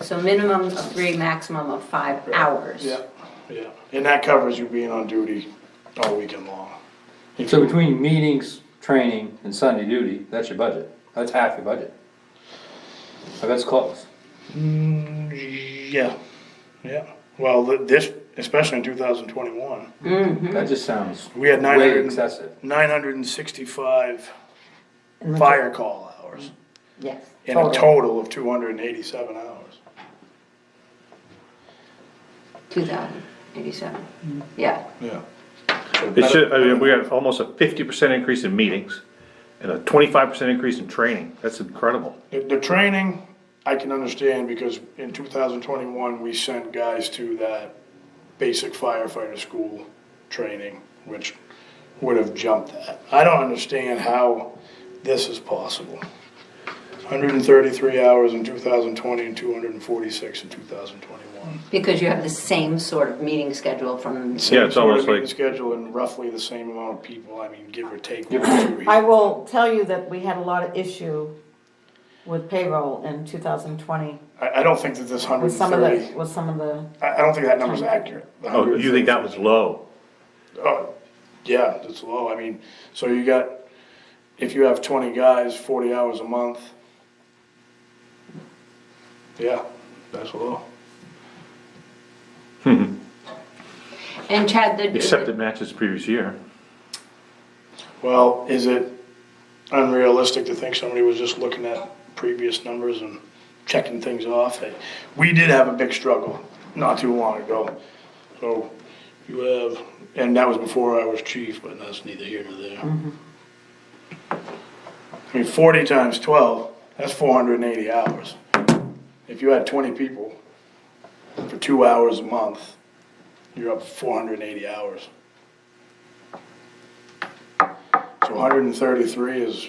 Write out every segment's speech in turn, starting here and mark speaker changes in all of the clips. Speaker 1: So minimum of three, maximum of five hours.
Speaker 2: Yeah, yeah, and that covers you being on duty all weekend long. If
Speaker 3: So
Speaker 2: you-
Speaker 3: between meetings, training, and Sunday duty, that's your budget, that's half your budget. But that's close.
Speaker 2: Mm, Yeah, yeah, well, th- this, especially in two thousand twenty-one,
Speaker 1: Mm-hmm.
Speaker 3: That just sounds
Speaker 2: we had nine
Speaker 3: way
Speaker 2: hundred,
Speaker 3: excessive.
Speaker 2: nine hundred and sixty-five
Speaker 1: In the-
Speaker 2: fire call hours.
Speaker 1: Yes.
Speaker 2: And a total of two hundred and eighty-seven hours.
Speaker 1: Two thousand eighty-seven, yeah.
Speaker 2: Yeah.
Speaker 4: It should, I mean, we got almost a fifty percent increase in meetings and a twenty-five percent increase in training. That's incredible.
Speaker 2: The, the training, I can understand, because in two thousand twenty-one, we sent guys to that basic firefighter school training, which would have jumped that. I don't understand how this is possible. Hundred and thirty-three hours in two thousand twenty and two hundred and forty-six in two thousand twenty-one.
Speaker 1: Because you have the same sort of meeting schedule from,
Speaker 4: Yeah, it's almost like-
Speaker 2: Schedule and roughly the same amount of people, I mean, give or take. one or two
Speaker 5: I
Speaker 2: here.
Speaker 5: will tell you that we had a lot of issue with payroll in two thousand twenty,
Speaker 2: I, I don't think that this hundred
Speaker 5: with
Speaker 2: and
Speaker 5: some of the,
Speaker 2: thirty,
Speaker 5: with some of the,
Speaker 2: I, I don't think that number's accurate. the
Speaker 4: Oh, you
Speaker 2: 133.
Speaker 4: think that was low?
Speaker 2: Oh, yeah, that's low, I mean, so you got, if you have twenty guys, forty hours a month. Yeah, that's low.
Speaker 1: and Chad, the.
Speaker 4: Except it matches the previous year.
Speaker 2: Well, is it unrealistic to think somebody was just looking at previous numbers and checking things off? We did have a big struggle not too long ago, so you have, and that was before I was chief, but that's neither here nor there. I mean, forty times twelve, that's four hundred and eighty hours. If you had twenty people for two hours a month, you're up four hundred and eighty hours. So hundred and thirty-three is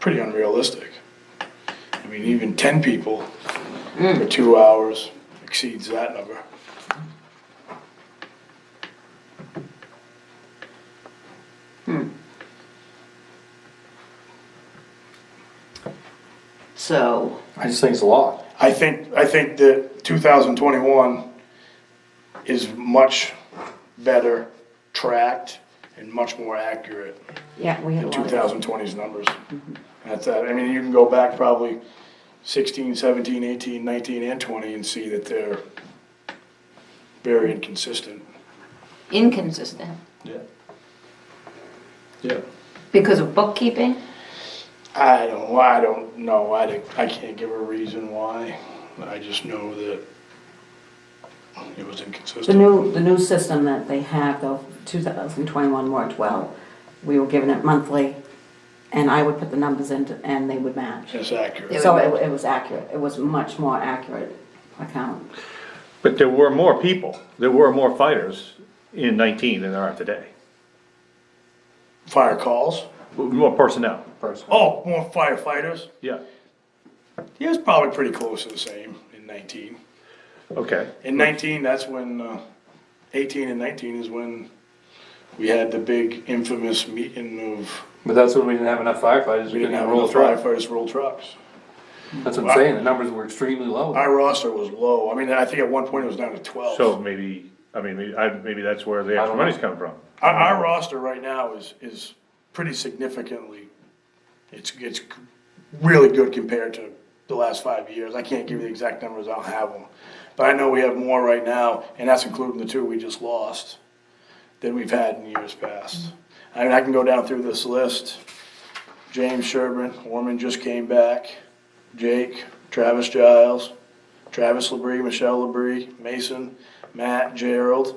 Speaker 2: pretty unrealistic. I mean, even ten people for two hours exceeds that number.
Speaker 1: So,
Speaker 3: I just think it's a lot.
Speaker 2: I think, I think that two thousand twenty-one is much better tracked and much more accurate
Speaker 5: yeah, we had a
Speaker 2: than two
Speaker 5: lot of.
Speaker 2: thousand twenty's numbers. That's that, I mean, you can go back probably sixteen, seventeen, eighteen, nineteen, and twenty and see that they're very inconsistent.
Speaker 1: inconsistent,
Speaker 2: Yeah. Yeah.
Speaker 1: because of bookkeeping,
Speaker 2: I don't, I don't know, I, don't- I can't give a reason why, I just know that it was
Speaker 5: The
Speaker 2: inconsistent.
Speaker 5: new, the new system that they have though, two thousand twenty-one worked well. We were given it monthly and I would put the numbers in and they would match.
Speaker 2: It's accurate.
Speaker 1: would
Speaker 5: So
Speaker 1: match.
Speaker 5: it, it was accurate. It was much more accurate account.
Speaker 4: But there were more people, there were more fighters in nineteen than there are today.
Speaker 2: Fire calls,
Speaker 4: More personnel.
Speaker 3: personally.
Speaker 2: oh, more firefighters,
Speaker 4: Yeah,
Speaker 2: yeah, it's probably pretty close to the same in nineteen.
Speaker 4: okay.
Speaker 2: In nineteen, that's when, uh, eighteen and nineteen is when we had the big infamous meeting of,
Speaker 3: But that's when we didn't have enough
Speaker 2: Oh.
Speaker 3: firefighters,
Speaker 2: we
Speaker 3: we
Speaker 2: didn't have
Speaker 3: roll
Speaker 2: enough
Speaker 3: through.
Speaker 2: firefighters roll trucks.
Speaker 3: That's what I'm saying, the numbers were extremely low.
Speaker 2: Our roster was low, I mean, I think at one point it was down to twelve.
Speaker 4: So maybe, I mean, maybe, I, maybe that's where the extra
Speaker 3: don't
Speaker 4: money's
Speaker 3: know.
Speaker 4: coming from.
Speaker 2: Our, our roster right now is, is pretty significantly, it's, it's really good compared to the last five years. I can't give you the exact numbers, I don't have them. But I know we have more right now, and that's including the two we just lost, than we've had in years past. I mean, I can go down through this list. James Sherburne, Orman just came back, Jake, Travis Giles, Travis Labrie, Michelle Labrie, Mason, Matt, Gerald,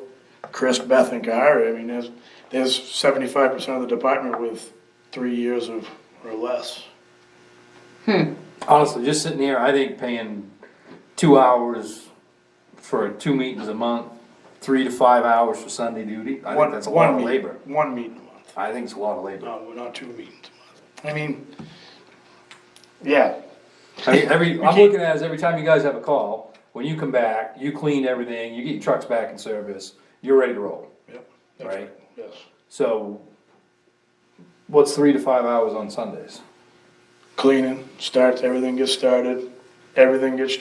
Speaker 2: Chris Bethencar. I mean, there's, there's seventy-five percent of the department with three years of, or less.
Speaker 3: Honestly, just sitting here, I think paying two hours for two meetings a month, three to five hours for Sunday duty, I
Speaker 2: One-
Speaker 3: think that's a
Speaker 2: one
Speaker 3: lot of
Speaker 2: meet-
Speaker 3: labor.
Speaker 2: One meeting a month.
Speaker 3: I think it's a lot of labor.
Speaker 2: No, not two meetings a month. I mean, yeah,
Speaker 3: I mean, every, I'm looking at is every time you guys have a call, when you come back, you clean everything, you get your trucks back in service, you're ready to roll.
Speaker 2: yep. that's
Speaker 3: Right.
Speaker 2: Yes.
Speaker 3: So, what's three to five hours on Sundays?
Speaker 2: Cleaning, starts, everything gets started, everything gets